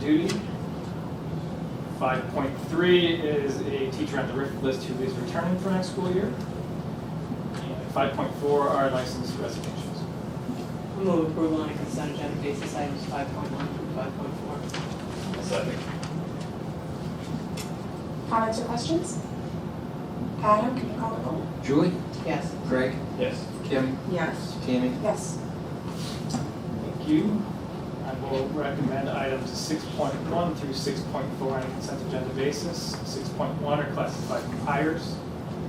duty. Five point three is a teacher on the RIF list who is returning for next school year. And five point four are licensed resignations. Move approval on a consent agenda basis items five point one through five point four. Second. Comments or questions? Adam, can you call the roll? Julie, Yes. Greg, Yes. Kim, yes, Tammy, Yes. Thank you. I will recommend items six point one through six point four on a consent agenda basis. Six point one are classified hires.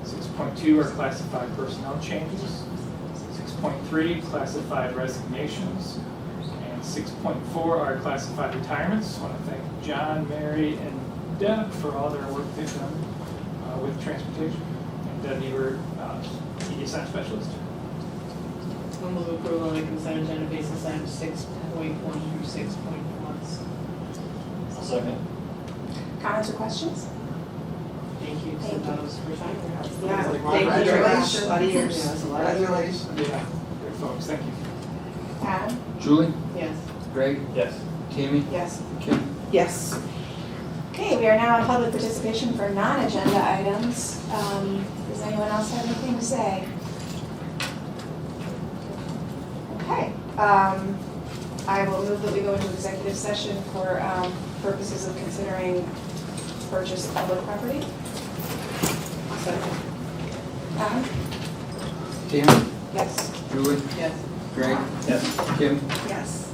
Six point two are classified personnel changes. Six point three, classified resignations. And six point four are classified retirements. Want to thank John, Mary, and Deb for all their work they've done uh, with transportation. And Deb, you were uh, ESI specialist. Move approval on a consent agenda basis items six point one through six point four. Second. Comments or questions? Thank you to Thank you. those retiring. yeah. Thank you. Congratulations. A lot of years. Yeah, it's a lot of years. Congratulations. Yeah, good folks, thank you. Adam? Julie, Yes. Greg, Yes. Tammy, Yes. Kim, Yes, Okay, we are now in public participation for non-agenda items. Um, Does anyone else have anything to say? Okay, um, I will move that we go into executive session for um, purposes of considering purchase of public property. Second. Adam? Tammy, Yes. Julie, Yes. Greg, Yes. Kim, yes.